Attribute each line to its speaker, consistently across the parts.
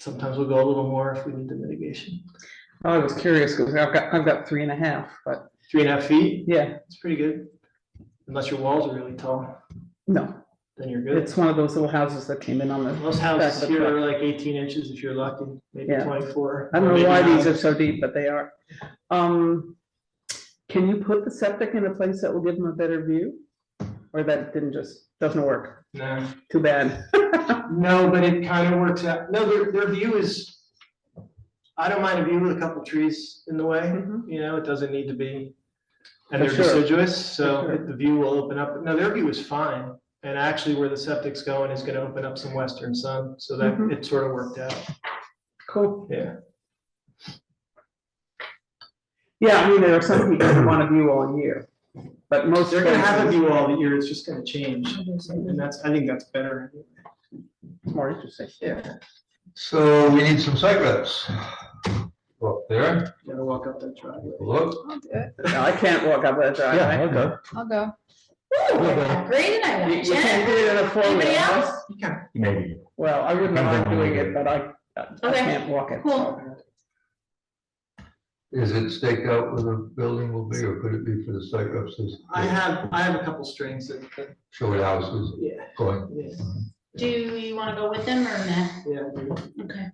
Speaker 1: sometimes we'll go a little more if we need the mitigation.
Speaker 2: Oh, I was curious, because I've got, I've got three and a half, but
Speaker 1: Three and a half feet,
Speaker 2: yeah,
Speaker 1: it's pretty good. Unless your walls are really tall,
Speaker 2: no,
Speaker 1: then you're good.
Speaker 2: it's one of those little houses that came in on the,
Speaker 1: Most
Speaker 2: That's
Speaker 1: houses
Speaker 2: the
Speaker 1: here
Speaker 2: truck.
Speaker 1: are like eighteen inches if you're lucky, maybe
Speaker 2: Yeah.
Speaker 1: twenty-four.
Speaker 2: I
Speaker 1: or
Speaker 2: don't know
Speaker 1: maybe
Speaker 2: why these
Speaker 1: nine.
Speaker 2: are so deep, but they are. Um, can you put the septic in a place that will give them a better view? Or that didn't just, doesn't work,
Speaker 1: No.
Speaker 2: too bad.
Speaker 1: No, but it kind of works out. No, their, their view is, I don't mind a view with a couple trees in the way,
Speaker 2: Mhm.
Speaker 1: you know, it doesn't need to be. And
Speaker 2: For
Speaker 1: they're
Speaker 2: sure.
Speaker 1: deciduous, so
Speaker 2: For sure.
Speaker 1: the view will open up. No, their view is fine. And actually where the septic's going is gonna open up some western sun, so that
Speaker 2: Mhm.
Speaker 1: it sort of worked out,
Speaker 2: Cool.
Speaker 1: yeah.
Speaker 2: Yeah, I mean, there are some people who want to view all year, but most.
Speaker 1: They're gonna have a
Speaker 2: places-
Speaker 1: view all year, it's just gonna change. And that's, I think that's better.
Speaker 2: It's More interesting.
Speaker 1: Yeah,
Speaker 3: So we need some site reps. Go Up there,
Speaker 1: gotta walk up that driveway.
Speaker 3: look.
Speaker 4: I'll do it.
Speaker 2: No, I can't walk up that driveway.
Speaker 3: okay.
Speaker 4: I'll go.
Speaker 3: Okay.
Speaker 4: Great, and I
Speaker 2: You
Speaker 4: went,
Speaker 2: you can't do it in a
Speaker 4: Anybody
Speaker 2: four-wheeler.
Speaker 4: else?
Speaker 3: Maybe.
Speaker 2: Well, I wouldn't mind doing it, but I, I
Speaker 4: Okay.
Speaker 2: can't walk it.
Speaker 4: Cool.
Speaker 3: Is it staked out where the building will be, or could it be for the site reps? to
Speaker 1: I have, I have a couple strings that, that-
Speaker 3: Show what houses
Speaker 1: yeah,
Speaker 3: going.
Speaker 1: yeah,
Speaker 4: Do you wanna go with them or not?
Speaker 1: yeah. I do.
Speaker 4: Okay,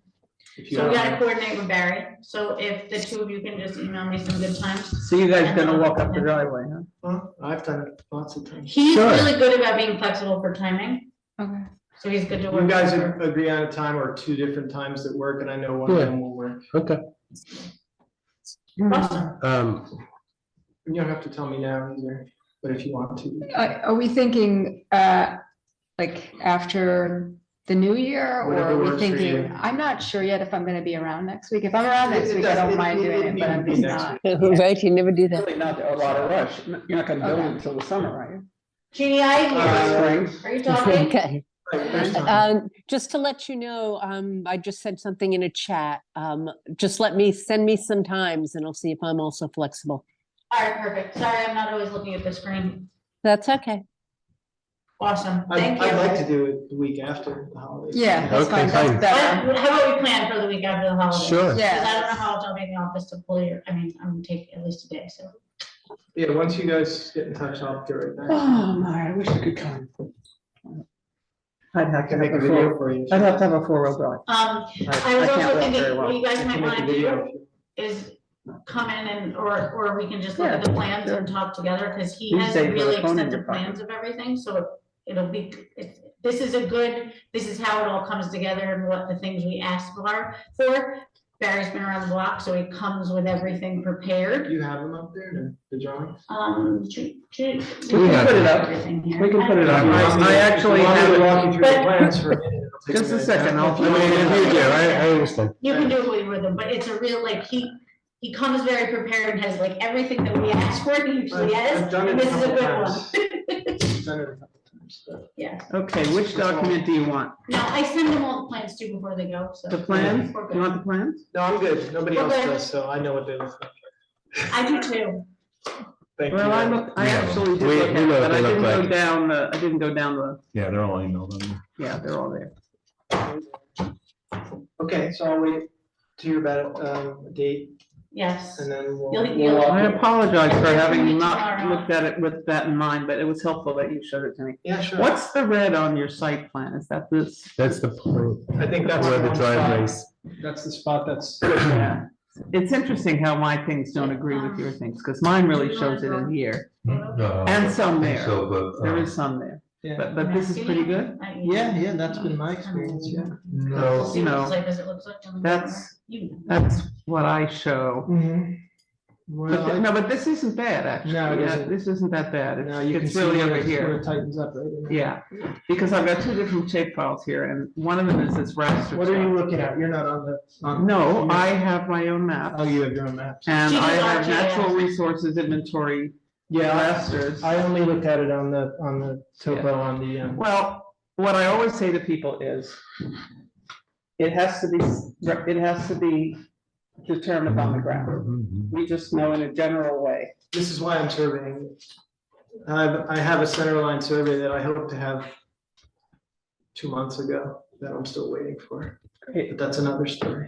Speaker 1: If you
Speaker 4: so we
Speaker 1: have-
Speaker 4: gotta coordinate with Barry, so if the two of you can just email me some good times.
Speaker 2: So you guys gonna walk up the driveway, huh?
Speaker 1: Well, I've done it lots of times.
Speaker 4: He's
Speaker 3: Sure.
Speaker 4: really good about being flexible for timing. Okay. So he's good to work.
Speaker 1: You guys
Speaker 4: with.
Speaker 1: ag- agree on a time or two different times that work, and I know one of
Speaker 5: Yeah.
Speaker 1: them will work.
Speaker 5: Okay,
Speaker 4: Awesome,
Speaker 5: um,
Speaker 1: You don't have to tell me now either, but if you want to.
Speaker 6: Uh, Are are we thinking, uh, like after the new year or
Speaker 1: Whatever
Speaker 6: are we
Speaker 1: works for you.
Speaker 6: thinking, I'm not sure yet if I'm gonna be around next week. If I'm around next
Speaker 1: It- it
Speaker 6: week, I don't
Speaker 1: does-
Speaker 6: mind doing it, but
Speaker 1: needs to
Speaker 6: I'm
Speaker 1: be
Speaker 6: just
Speaker 1: next
Speaker 6: not.
Speaker 1: week.
Speaker 7: Right, you never do that.
Speaker 2: Really not a lot of rush. You're not gonna build
Speaker 6: Okay.
Speaker 2: it until the summer, are you?
Speaker 4: Jeannie, I,
Speaker 1: Uh,
Speaker 2: Spring?
Speaker 4: are you talking?
Speaker 7: Okay.
Speaker 1: Right, there's time.
Speaker 7: Um, just to let you know, um, I just said something in a chat. Um, just let me, send me some times and I'll see if I'm also flexible.
Speaker 4: Alright, perfect, sorry, I'm not always looking at the screen,
Speaker 7: That's okay.
Speaker 4: awesome,
Speaker 1: I'd
Speaker 4: thank you.
Speaker 1: I'd like to do it the week after the holidays.
Speaker 6: Yeah, that's
Speaker 5: Okay,
Speaker 6: fine,
Speaker 5: fine.
Speaker 6: that's better.
Speaker 4: What- How about we plan for the week after the holiday?
Speaker 5: Sure.
Speaker 4: Because I don't know
Speaker 6: Yeah.
Speaker 4: how else I'll be in the office to pull your, I mean, I'm gonna take at least a day, so.
Speaker 1: Yeah, once you guys get in touch, I'll do it right now.
Speaker 2: Oh, my, I wish I could come. I'd
Speaker 1: I
Speaker 2: have to
Speaker 1: can
Speaker 2: make
Speaker 1: make
Speaker 2: a
Speaker 1: a
Speaker 2: four,
Speaker 1: video for you.
Speaker 2: I'd have to have a four-wheel drive.
Speaker 4: Um,
Speaker 2: I-
Speaker 4: I
Speaker 2: I
Speaker 4: was
Speaker 2: can't
Speaker 4: also
Speaker 2: walk very
Speaker 4: thinking, what
Speaker 2: well.
Speaker 4: you guys
Speaker 1: I
Speaker 4: might
Speaker 1: can make a
Speaker 4: wanna do
Speaker 1: video.
Speaker 4: is come in and, or, or we can just look
Speaker 2: Yeah,
Speaker 4: at the plans
Speaker 2: sure.
Speaker 4: and talk together, cause he
Speaker 2: You
Speaker 4: has
Speaker 2: say with a
Speaker 4: really
Speaker 2: phone in your
Speaker 4: extensive
Speaker 2: pocket.
Speaker 4: plans of everything, so it- it'll be, it's- this is a good, this is how it all comes together and what the things we asked for, for. Barry's been around the block, so he comes with everything prepared.
Speaker 1: Do you have them up there, the- the drawings?
Speaker 4: Um, to, to.
Speaker 2: We
Speaker 3: can
Speaker 2: put it up.
Speaker 4: Everything here.
Speaker 2: We can put it
Speaker 1: If
Speaker 2: up.
Speaker 1: you want me to-
Speaker 2: I actually
Speaker 1: if you want me to
Speaker 2: have,
Speaker 1: Walk you through the
Speaker 4: But-
Speaker 1: plans for a minute. it'll take
Speaker 2: Just a
Speaker 1: minute.
Speaker 2: second, I'll-
Speaker 1: If you want me to do it,
Speaker 4: I- I
Speaker 5: understand.
Speaker 4: You can do it with them, but it's a real, like, he, he comes very prepared and has like everything that we asked for, he
Speaker 1: I've-
Speaker 4: usually
Speaker 1: I've
Speaker 4: has,
Speaker 1: done it
Speaker 4: and this is a
Speaker 1: couple
Speaker 4: good one.
Speaker 1: times. I've done it a couple times, so.
Speaker 4: Yeah,
Speaker 2: okay, which document do you want?
Speaker 4: no, I send them all the plans too before they go, so.
Speaker 2: The plans?
Speaker 4: We're
Speaker 2: You
Speaker 4: good.
Speaker 2: want the plans?
Speaker 1: No, I'm good. Nobody else
Speaker 4: Okay.
Speaker 1: does, so I know what they look like.
Speaker 4: I do too.
Speaker 1: Thank you.
Speaker 2: Well, I look, I
Speaker 5: Yeah.
Speaker 2: actually did
Speaker 5: We-
Speaker 2: look
Speaker 5: we
Speaker 2: at it,
Speaker 5: know what
Speaker 2: but I
Speaker 5: they look
Speaker 2: didn't go
Speaker 5: like.
Speaker 2: down, the. I didn't go down the,
Speaker 5: Yeah, they're all emailed. them.
Speaker 2: yeah, they're all there.
Speaker 1: Okay, so I'll wait to hear about um, a date
Speaker 4: Yes.
Speaker 1: and then we'll.
Speaker 4: You'll-
Speaker 1: we'll
Speaker 4: you'll-
Speaker 1: walk
Speaker 2: I
Speaker 1: it.
Speaker 2: apologize for having not
Speaker 4: Tomorrow.
Speaker 2: looked at it with that in mind, but it was helpful that you showed it to me.
Speaker 1: Yeah, sure.
Speaker 2: What's the red on your site plan? Is that this?
Speaker 5: That's the point.
Speaker 1: I think that's
Speaker 5: Where
Speaker 1: the
Speaker 5: the
Speaker 1: one
Speaker 5: driveways.
Speaker 1: spot. That's the spot that's.
Speaker 2: Yeah. It's interesting how my things don't agree with your things, because mine really shows it in here
Speaker 3: No, I
Speaker 2: and
Speaker 3: don't
Speaker 2: some
Speaker 3: think
Speaker 2: there.
Speaker 3: So, but.
Speaker 2: There
Speaker 3: uh,
Speaker 2: is some there,
Speaker 1: Yeah,
Speaker 2: but, but this is pretty good.
Speaker 4: I-
Speaker 1: yeah, yeah, that's been my experience, yeah.
Speaker 3: No,
Speaker 4: See what
Speaker 2: No.
Speaker 4: it's like, as it looks like.
Speaker 2: That's-
Speaker 4: You know.
Speaker 2: That's what I show. But, th-
Speaker 1: Mm-hmm. Well,
Speaker 2: no, but this isn't bad, actually.
Speaker 1: No, it
Speaker 2: Yeah,
Speaker 1: isn't.
Speaker 2: This isn't that bad.
Speaker 1: now
Speaker 2: It's-
Speaker 1: you can
Speaker 2: It's
Speaker 1: see
Speaker 2: really
Speaker 1: where
Speaker 2: over
Speaker 1: it- where
Speaker 2: here.
Speaker 1: it tightens up, right? in there.
Speaker 2: Yeah, because I've got two different shape files here and one of them is this raster.
Speaker 1: What are you
Speaker 2: chart.
Speaker 1: looking at? You're not on the. on-
Speaker 2: No,
Speaker 1: you're-
Speaker 2: I have my own map
Speaker 1: Oh, you have your own maps.
Speaker 2: and
Speaker 4: She does
Speaker 2: I have
Speaker 4: RGS.
Speaker 2: natural resources inventory rasters.
Speaker 1: I only looked at it on the, on the topo, on the, um,
Speaker 2: Well, what I always say to people is, it has to be, it has to be determined on the ground.
Speaker 5: Mhm.
Speaker 2: We just know in a general way.
Speaker 1: this is why I'm surveying. I have, I have a center line survey that I hope to have two months ago. that I'm still waiting for,
Speaker 2: Great.
Speaker 1: but that's another story.